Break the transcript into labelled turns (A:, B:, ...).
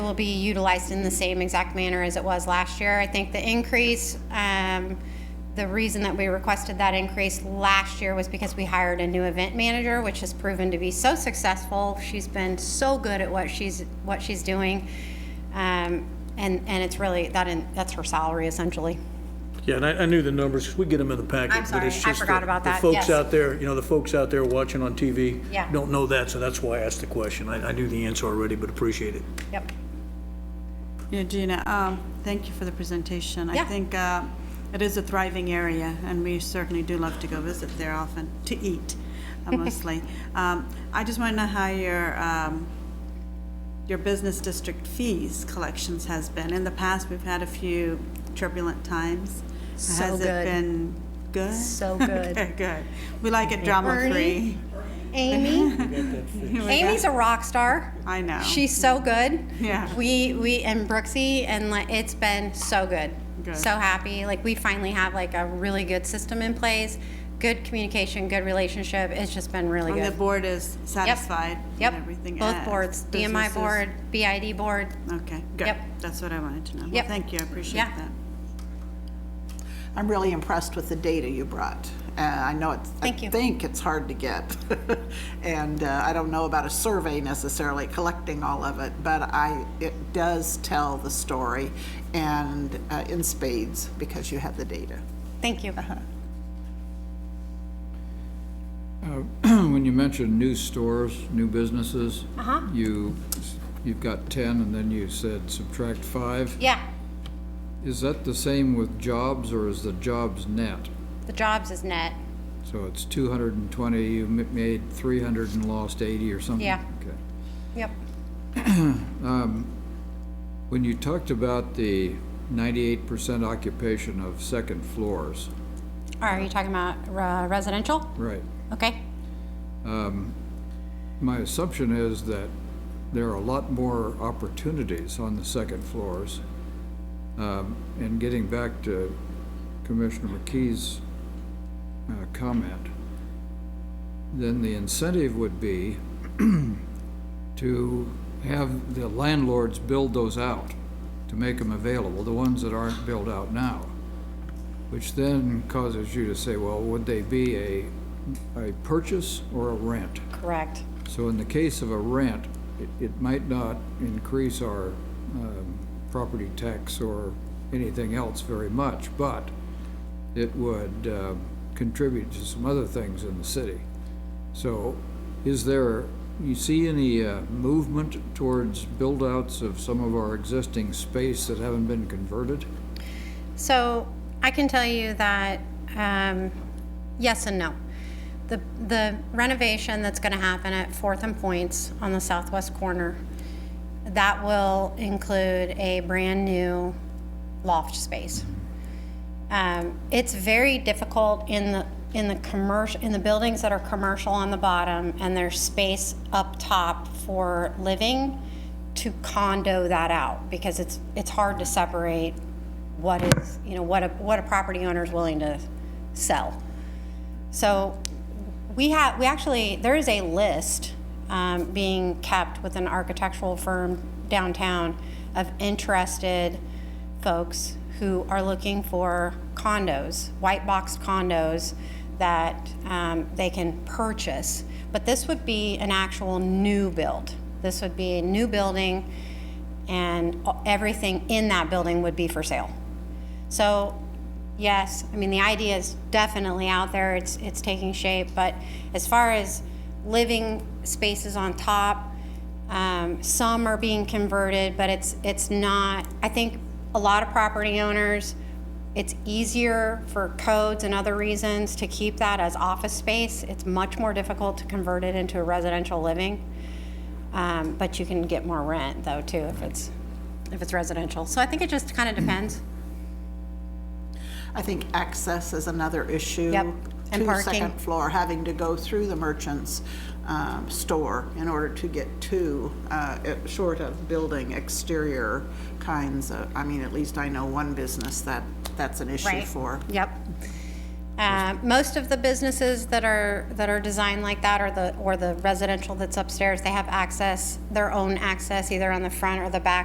A: will be utilized in the same exact manner as it was last year. I think the increase, um, the reason that we requested that increase last year was because we hired a new event manager, which has proven to be so successful. She's been so good at what she's, what she's doing. Um, and, and it's really, that, in- that's her salary essentially.
B: Yeah, and I, I knew the numbers, 'cause we get them in the packet.
A: I'm
B: but it's
A: sorry, I
B: just
A: forgot
B: the-
A: about that,
B: The
A: yes.
B: folks out there, you know, the folks out there watching on TV
A: Yeah.
B: don't know that, so that's why I asked the question. I, I knew the answer already, but appreciate it.
A: Yep.
C: Yeah, Gina, um, thank you for the presentation.
A: Yeah.
C: I think uh, it is a thriving area, and we certainly do love to go visit there often, to eat uh, mostly. Um, I just want to know how your, um, your business district fees collections has been. In the past, we've had a few turbulent times.
A: So
C: Has
A: good.
C: it been good?
A: So good.
C: Okay, good. We like it drama-free.
A: Ernie? Amy, Amy's a rock star.
C: I know.
A: She's so good.
C: Yeah.
A: We we and Brooksy and like it's been so good.
C: Good.
A: So happy. Like we finally have like a really good system in place. Good communication, good relationship. It's just been really
C: And the
A: good.
C: board is satisfied
A: yep.
C: with everything?
A: Both
C: uh,
A: boards, DMI
C: businesses?
A: board, BID board.
C: Okay, good.
A: Yep.
C: That's what I wanted to know. Well,
A: Yep.
C: thank you, I appreciate
A: Yeah.
C: that.
D: I'm really impressed with the data you brought. Uh, I know it's, I
A: Thank you.
D: think it's hard to get. And uh, I don't know about a survey necessarily, collecting all of it, but I, it does tell the story and uh, in spades because you have the data.
A: Thank you.
C: Uh-huh.
E: When you mentioned new stores, new businesses, you, you've got 10, and then you said subtract five.
A: Yeah.
E: Is that the same with jobs, or is the jobs net?
A: The jobs is net.
E: So it's 220, you ma- made 300 and lost 80 or something?
A: Yeah.
E: Okay.
A: Yep.
E: When you talked about the 98% occupation of second floors,
A: Are you talking about uh, residential?
E: right,
A: Okay.
E: Um, my assumption is that there are a lot more opportunities on the second floors. Um, And getting back to Commissioner McKee's uh, comment, then the incentive would be to have the landlords build those out, to make them available, the ones that aren't built out now, which then causes you to say, well, would they be a, a purchase or a rent?
A: Correct.
E: So in the case of a rent, it, it might not increase our um, property tax or anything else very much, but it would uh, contribute to some other things in the city. So is there, you see any uh, movement towards build-outs of some of our existing space that haven't been converted?
A: So I can tell you that um, yes and no. The, the renovation that's going to happen at Fourth and Points on the southwest corner, that will include a brand new loft space. Um, it's very difficult in the in the commercial in the buildings that are commercial on the bottom and there's space up top for living to condo that out because it's it's hard to separate what is you know what a what a property owner is willing to sell. So we have, we actually, there is a list um, being kept with an architectural firm downtown of interested folks who are looking for condos, white box condos that um, they can purchase. But this would be an actual new build. This would be a new building and everything in that building would be for sale. So, yes, I mean, the idea is definitely out there, it's, it's taking shape, but as far as living spaces on top, um, some are being converted, but it's, it's not, I think a lot of property owners, it's easier for codes and other reasons to keep that as office space. It's much more difficult to convert it into a residential living. Um, but you can get more rent though too if it's, if it's residential. So I think it just kind of depends.
D: I think access is another issue.
A: Yep, and
D: To the
A: parking.
D: second floor, having to go through the merchant's um, store in order to get to, uh, it- short of building exterior kinds of, I mean, at least I know one business that, that's an issue
A: Right.
D: for.
A: Yep. Uh, Most of the businesses that are, that are designed like that, or the, or the residential that's upstairs, they have access, their own access, either on the front or the back